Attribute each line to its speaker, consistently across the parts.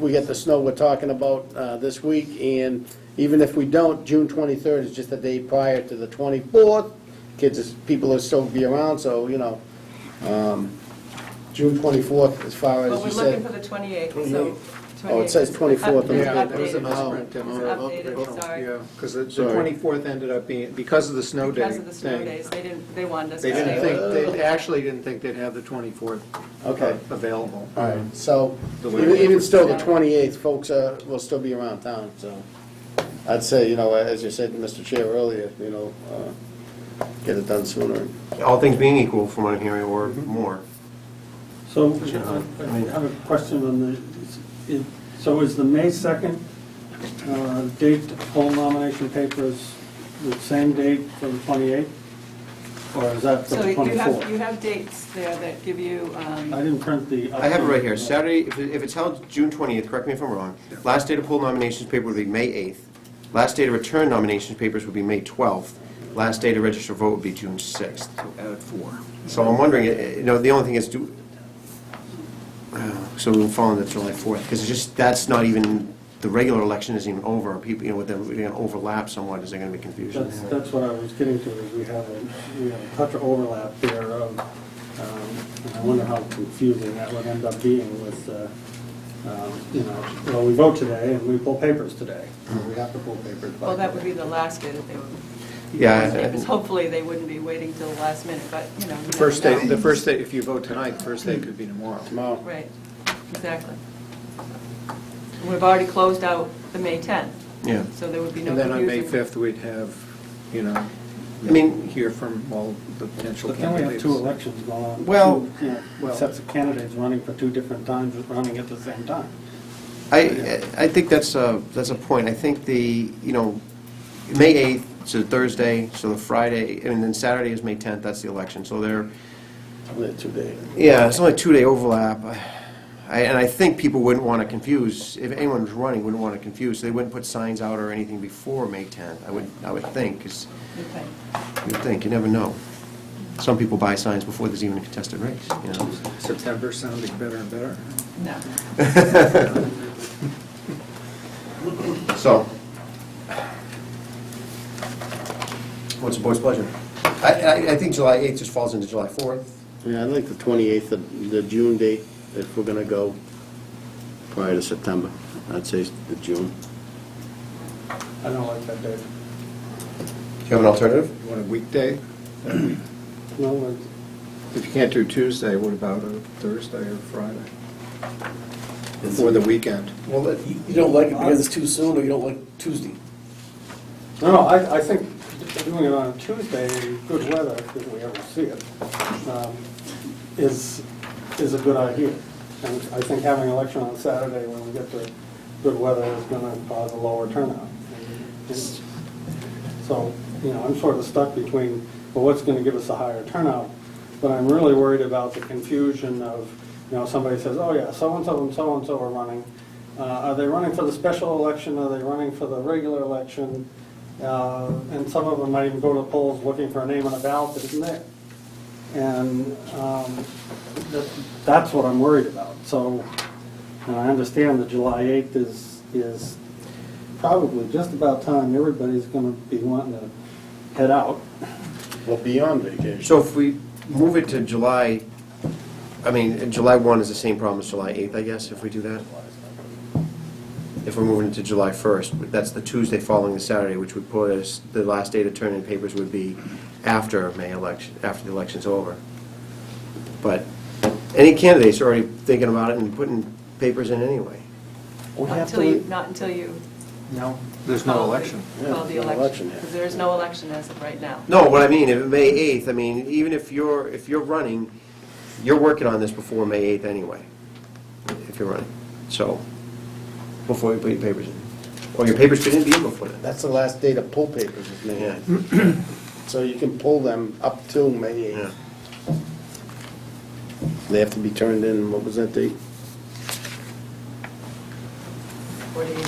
Speaker 1: we get the snow we're talking about uh, this week, and even if we don't, June 23rd is just the day prior to the 24th. Kids, is- people will still be around, so, you know, um, June 24th, as far
Speaker 2: Well,
Speaker 1: as
Speaker 2: we're
Speaker 1: you
Speaker 2: looking for
Speaker 1: said.
Speaker 2: the 28th, so.
Speaker 1: 28th. Oh, it says 24th on the
Speaker 2: Yeah,
Speaker 3: Yeah,
Speaker 1: paper.
Speaker 3: it was an
Speaker 1: Oh.
Speaker 3: upprint
Speaker 2: It was
Speaker 3: demo.
Speaker 2: updated, sorry.
Speaker 3: Yeah, because the
Speaker 1: Sorry.
Speaker 3: 24th ended up being, because of the snow day
Speaker 2: Because of the snow
Speaker 3: thing.
Speaker 2: days, they didn't, they wanted us to
Speaker 3: They
Speaker 2: stay.
Speaker 3: didn't
Speaker 2: with-
Speaker 3: think, they actually didn't think they'd have the 24th
Speaker 1: Okay.
Speaker 3: available.
Speaker 1: All right, so,
Speaker 3: The way
Speaker 1: even
Speaker 3: we-
Speaker 1: even still, the 28th, folks uh, will still be around town, so. I'd say, you know, as you said, Mr. Chair, earlier, you know, uh, get it done sooner.
Speaker 4: All things being equal, from what I'm hearing, or more.
Speaker 5: So I I have a question on the, it- so is the May 2nd uh, date, poll nomination papers, the same date for the 28th? Or is that for
Speaker 2: So
Speaker 5: the
Speaker 2: you have, you
Speaker 5: 24th?
Speaker 2: have dates there that give you, um,
Speaker 5: I didn't print the.
Speaker 4: I have it right here, Saturday, if it- if it's held June 20th, correct me if I'm wrong, last day to pull nominations paper would be May 8th, last day to return nominations papers would be May 12th, last day to register vote would be June 6th.
Speaker 3: At four.
Speaker 4: So I'm wondering, eh, eh, you know, the only thing is, do, uh, so we'll fall into July 4th, because it's just, that's not even, the regular election isn't even over, people, you know, they're going to overlap somewhat, is there going to be confusion?
Speaker 5: That's, that's what I was getting to, is we have a, we have a touch of overlap there of, um, and I wonder how confusing that would end up being with, uh, um, you know, well, we vote today and we pull papers today. We have to pull papers by.
Speaker 2: well, that would
Speaker 5: today.
Speaker 2: be the last day that they would.
Speaker 4: Yeah,
Speaker 2: It was-
Speaker 4: eh,
Speaker 2: Hopefully, they wouldn't be waiting till the last minute, but, you know. you
Speaker 3: The first
Speaker 2: never
Speaker 3: day,
Speaker 2: know.
Speaker 3: the first day, if you vote tonight, the first day could be tomorrow.
Speaker 1: Tomorrow.
Speaker 2: Right, exactly. We've already closed out the May 10th,
Speaker 4: yeah.
Speaker 2: so there would be no
Speaker 3: And then on
Speaker 2: confusion.
Speaker 3: May 5th, we'd have, you know,
Speaker 4: I mean-
Speaker 3: hear from all the potential
Speaker 5: But then we have
Speaker 3: candidates.
Speaker 5: two elections going on.
Speaker 4: Well-
Speaker 5: two, you know, Sets of candidates running for two different times, running at the same time.
Speaker 4: I, I think that's a, that's a point. I think the, you know, May 8th, it's a Thursday, so the Friday, and then Saturday is May 10th, that's the election. So there,
Speaker 1: Only two days.
Speaker 4: yeah, it's only a two-day overlap. I- And I think people wouldn't want to confuse, if anyone was running, wouldn't want to confuse. They wouldn't put signs out or anything before May 10th, I would, I would think, because
Speaker 2: Okay.
Speaker 4: you'd think, you never know. Some people buy signs before there's even a contested race, you know?
Speaker 3: September sounding better and better.
Speaker 2: No.
Speaker 4: So. What's the board's pleasure? I, I, I think July 8th just falls into July 4th.
Speaker 1: Yeah, I'd like the 28th, of the June date, if we're gonna go prior to September. I'd say the June.
Speaker 5: I don't like that date.
Speaker 4: Do you have an alternative?
Speaker 3: You want a weekday?
Speaker 5: No,
Speaker 3: If you can't do Tuesday, what about a Thursday or Friday? Or the weekend?
Speaker 6: Well, that- you you don't like it because it's too soon, or you don't like Tuesday?
Speaker 5: I- no, no, I, I think doing it on a Tuesday in good weather, if we ever see it, um, is, is a good idea. And I think having an election on Saturday when we get to good weather is gonna cause a lower turnout. And- So, you know, I'm sort of stuck between, well, what's going to give us a higher turnout? But I'm really worried about the confusion of, you know, somebody says, oh, yeah, so-and-so and so-and-so are running. Uh, Are they running for the special election? Are they running for the regular election? Uh, And some of them might even go to polls looking for a name on a ballot that isn't there. And um, that- that's what I'm worried about. So, and I understand that July 8th is, is probably just about time everybody's going to be wanting to head out.
Speaker 1: Well, beyond vacation.
Speaker 4: So if we move it to July, I mean, uh, July 1 is the same problem as July 8th, I guess, if we do that? If we're moving it to July 1st, but that's the Tuesday following the Saturday, which would put us, the last day to turn in papers would be after May election, after the election's over. But any candidates are already thinking about it and putting papers in anyway.
Speaker 5: We
Speaker 2: Not
Speaker 5: have
Speaker 2: until you,
Speaker 5: to,
Speaker 2: not until you.
Speaker 5: no,
Speaker 3: There's
Speaker 2: call
Speaker 3: no
Speaker 2: the-
Speaker 3: election.
Speaker 1: Yeah,
Speaker 2: Call the
Speaker 1: no
Speaker 2: election,
Speaker 1: election yet.
Speaker 2: because there is no election as of right now.
Speaker 4: No, what I mean, if May 8th, I mean, even if you're, if you're running, you're working on this before May 8th anyway, if you're running, so, before you put your papers in. Or your papers shouldn't be in before that.
Speaker 1: That's the last day to pull papers, is May
Speaker 4: Yeah.
Speaker 1: 8th. So you can pull them up till May
Speaker 4: Yeah.
Speaker 1: 8th. They have to be turned in, what was that date?
Speaker 2: What do you,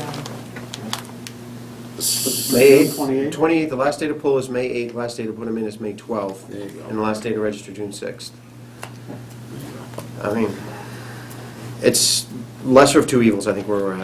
Speaker 2: um,
Speaker 4: May 8th,
Speaker 5: 28th?
Speaker 4: 28th, the last day to pull is May 8th, last day to put them in is May 12th.
Speaker 1: There you go.
Speaker 4: And the last day to register, June 6th. I mean, it's, lesser of two evils, I think, where we're at.